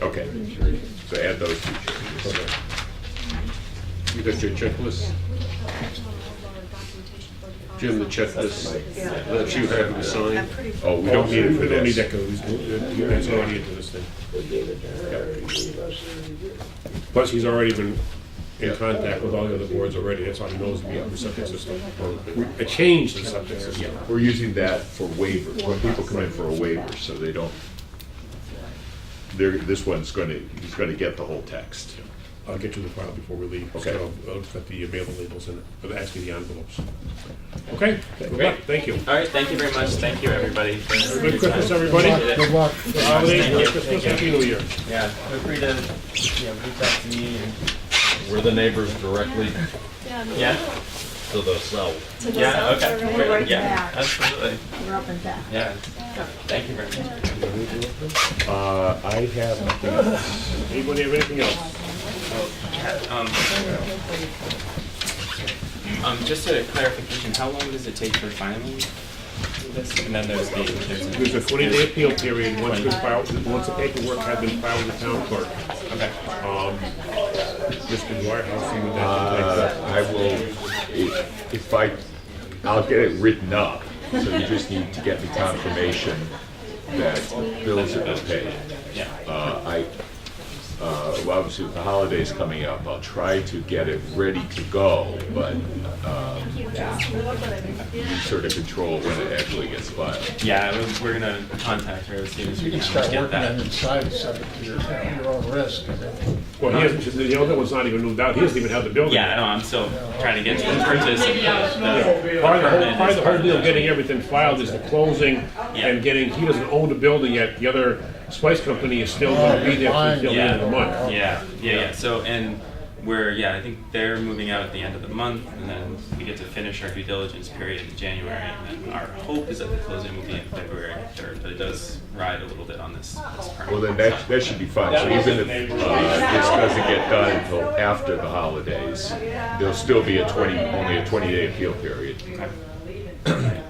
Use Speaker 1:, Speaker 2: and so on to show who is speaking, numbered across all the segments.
Speaker 1: Okay, so add those two changes. You got your checklist? Jim, the checklist that you have to sign? Oh, we don't need it for
Speaker 2: We don't need
Speaker 1: this.
Speaker 2: that code. That's all I need for this thing. Plus, he's already been in contact with all the other boards already, that's why he knows we have the septic system. A change to the septic system.
Speaker 1: We're using that for waivers, when people come in for a waiver, so they don't, they're, this one's gonna, he's gonna get the whole text.
Speaker 2: I'll get you the file before we leave.
Speaker 1: Okay.
Speaker 2: So I'll- I'll put the available labels in it, but actually the envelopes. Okay, good luck,
Speaker 3: Great.
Speaker 2: thank you.
Speaker 3: All right, thank you very much. Thank you, everybody. for your
Speaker 2: Merry Christmas,
Speaker 3: time.
Speaker 2: everybody.
Speaker 3: Appreciate it.
Speaker 4: Good luck.
Speaker 2: Holidays,
Speaker 3: Thank
Speaker 2: Merry
Speaker 3: you.
Speaker 2: Christmas,
Speaker 3: Thank you.
Speaker 2: Happy New Year.
Speaker 3: Yeah, feel free to, you know, reach out to me and,
Speaker 5: We're the neighbors directly
Speaker 3: yeah,
Speaker 5: to the south.
Speaker 6: To the
Speaker 3: yeah,
Speaker 6: south
Speaker 3: okay.
Speaker 6: or
Speaker 3: great,
Speaker 6: whatever.
Speaker 3: Yeah, absolutely.
Speaker 6: We're up and back.
Speaker 3: Yeah. Thank you very much.
Speaker 1: Uh, I have nothing else.
Speaker 2: Anybody have anything else?
Speaker 3: Um, um, just a clarification, how long does it take for filing this? And then there's the, there's a.
Speaker 2: There's a twenty-day appeal period, once we file, once the paperwork has been filed with the town clerk.
Speaker 3: Okay.
Speaker 2: Um, Mr. Dwyer, I'll see what
Speaker 1: Uh,
Speaker 2: that
Speaker 1: I will, if if I, I'll get it written up, so you just need to get me confirmation that bills have been paid.
Speaker 3: Yeah.
Speaker 1: Uh, I, uh, well, obviously with the holidays coming up, I'll try to get it ready to go, but, um, you sort of control when it actually gets filed.
Speaker 3: Yeah, we- we're gonna contact her as soon as
Speaker 4: You
Speaker 3: we
Speaker 4: can
Speaker 3: can
Speaker 4: start
Speaker 3: get
Speaker 4: working on
Speaker 3: that.
Speaker 4: inside, subject to your, your own risk.
Speaker 2: Well, he hasn't, the other one's not even moved out, he hasn't even had the building.
Speaker 3: Yeah, I know, I'm still trying to get to the purchase. of the- the
Speaker 2: Part of the whole,
Speaker 3: permit
Speaker 2: part of
Speaker 3: is
Speaker 2: the whole
Speaker 3: part of
Speaker 2: deal,
Speaker 3: that.
Speaker 2: getting everything filed is the closing
Speaker 3: Yeah.
Speaker 2: and getting, he doesn't own the building yet, the other spice company is still gonna be there until the end of the month.
Speaker 3: Yeah, yeah, yeah. So, and we're, yeah, I think they're moving out at the end of the month, and then we get to finish our due diligence period in January, and then our hope is that the closing will be in February 3rd, but it does ride a little bit on this, this permit.
Speaker 1: Well, then that, that should be fine, so even if, uh, this doesn't get done until after the holidays, there'll still be a twenty, only a twenty-day appeal period.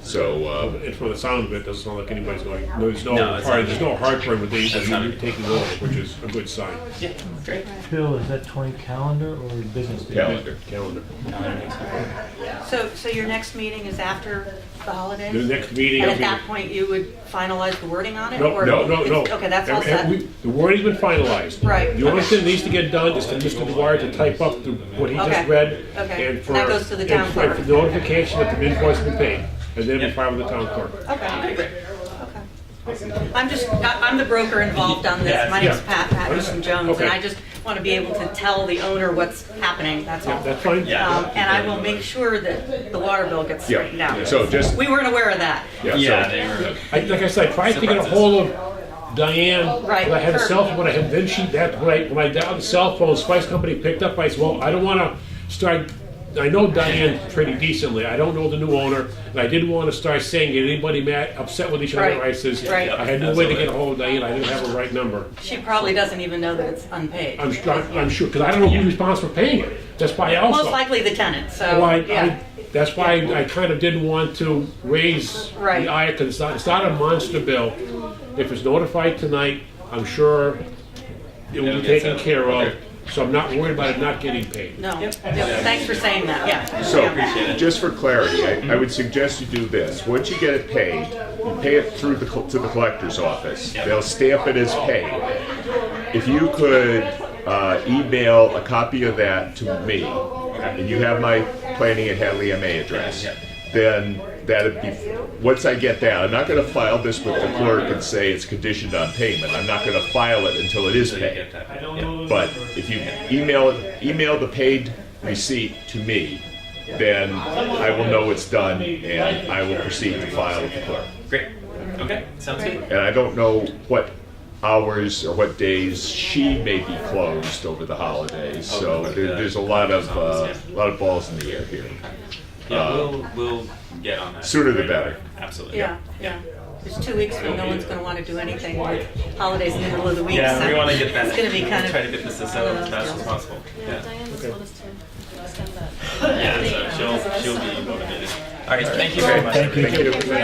Speaker 1: So, uh,
Speaker 2: And from the sound of it, doesn't sound like anybody's going, there's no,
Speaker 3: No, it's
Speaker 2: part-
Speaker 3: not.
Speaker 2: there's no hardship with these,
Speaker 3: That's not
Speaker 2: you're
Speaker 3: it.
Speaker 2: taking over, which is a good sign.
Speaker 3: Yeah, great.
Speaker 7: Bill, is that twenty calendar or business day?
Speaker 1: calendar.
Speaker 2: Calendar.
Speaker 8: So, so your next meeting is after the holidays?
Speaker 2: The next meeting.
Speaker 8: And
Speaker 2: I'll
Speaker 8: at
Speaker 2: be-
Speaker 8: that point, you would finalize the wording on it?
Speaker 2: No,
Speaker 8: or-
Speaker 2: no, no, no.
Speaker 8: it's- Okay, that's all
Speaker 2: And- and
Speaker 8: set.
Speaker 2: we- The wording's been finalized.
Speaker 8: Right.
Speaker 2: The only
Speaker 8: Okay.
Speaker 2: thing that needs to get done is for Mr. Dwyer to type up the- what he just
Speaker 8: Okay.
Speaker 2: read.
Speaker 8: Okay.
Speaker 2: and
Speaker 8: And
Speaker 2: for-
Speaker 8: that goes to the town
Speaker 2: and for-
Speaker 8: clerk.
Speaker 2: for the notification that the invoice has been paid, and then we file with the town clerk.
Speaker 8: Okay, great. Okay. I'm just, I- I'm the broker involved on
Speaker 3: Yeah,
Speaker 8: this. My name's
Speaker 2: yeah.
Speaker 8: Pat Patterson Jones,
Speaker 2: Okay.
Speaker 8: and I just want to be able to tell the owner what's happening, that's all.
Speaker 2: That's fine?
Speaker 3: Yeah.
Speaker 8: Um, And I will make sure that the water bill gets straightened
Speaker 1: Yeah,
Speaker 8: out.
Speaker 1: so just,
Speaker 8: We weren't aware of that.
Speaker 1: yeah,
Speaker 3: Yeah,
Speaker 1: so,
Speaker 3: they were,
Speaker 2: I, like I said, I tried to get a
Speaker 3: Surprises.
Speaker 2: hold of Diane,
Speaker 8: Right,
Speaker 2: but I had a
Speaker 8: her.
Speaker 2: cell phone, I had, then she, that, when I, when I dialed the cell phone, Spice Company picked up, I said, well, I don't wanna start, I know Diane pretty decently, I don't know the new owner, and I didn't wanna start saying, get anybody mad, upset with each other,
Speaker 8: Right,
Speaker 2: I says,
Speaker 8: right.
Speaker 2: I had no way to get a hold of Diane, I didn't have her right number.
Speaker 8: She probably doesn't even know that it's unpaid.
Speaker 2: I'm, su- I'm sure, cause I don't know who's responsible for paying it, that's why I also.
Speaker 8: Most likely the tenant, so,
Speaker 2: Well, Oh, I,
Speaker 8: yeah.
Speaker 2: I, that's why I kind of didn't want to raise
Speaker 8: Right.
Speaker 2: the eye, because it's not, it's not a monster bill. If it's notified tonight, I'm sure it will
Speaker 3: It'll
Speaker 2: be
Speaker 3: get
Speaker 2: taken
Speaker 3: settled.
Speaker 2: care of,
Speaker 1: Okay.
Speaker 2: so I'm not worried about it not getting paid.
Speaker 8: No, Yep, thanks for saying that, yeah. Yeah.
Speaker 1: so, just for clarity, I, I
Speaker 3: Mm-hmm.
Speaker 1: would suggest you do this, once you get it paid, you pay it through the, col- to the collector's office, they'll stamp it as paid. If you could, uh, email a copy of that to me, and you have my planning at Hadley MA address, then that'd be, once I get that, I'm not gonna file this with the clerk and say it's conditioned on payment, I'm not gonna file it until it is
Speaker 3: so you
Speaker 1: paid.
Speaker 3: get that. Yeah.
Speaker 1: But if you email, email the paid receipt to me, then I will know it's done and I will proceed to file with the clerk.
Speaker 3: Great. Okay, sounds good.
Speaker 1: And I don't know what hours or what days she may be closed over the holidays, so there, there's a lot of, uh, a lot of balls in the air here.
Speaker 3: Yeah,
Speaker 1: Uh,
Speaker 3: we'll, we'll get on that.
Speaker 1: sooner the
Speaker 3: right away.
Speaker 1: better.
Speaker 3: Absolutely.
Speaker 8: Yeah, yeah. It's two weeks when no one's gonna wanna do anything with holidays in the middle of the week, so.
Speaker 3: Yeah, we wanna get that,
Speaker 8: It's gonna be kind
Speaker 3: try to
Speaker 8: of,
Speaker 3: get this as settled as fast as possible. Yeah.
Speaker 6: Yeah.
Speaker 3: Yeah, so she'll, she'll be motivated. All right, thank you very much.
Speaker 7: Thank you.
Speaker 3: everybody.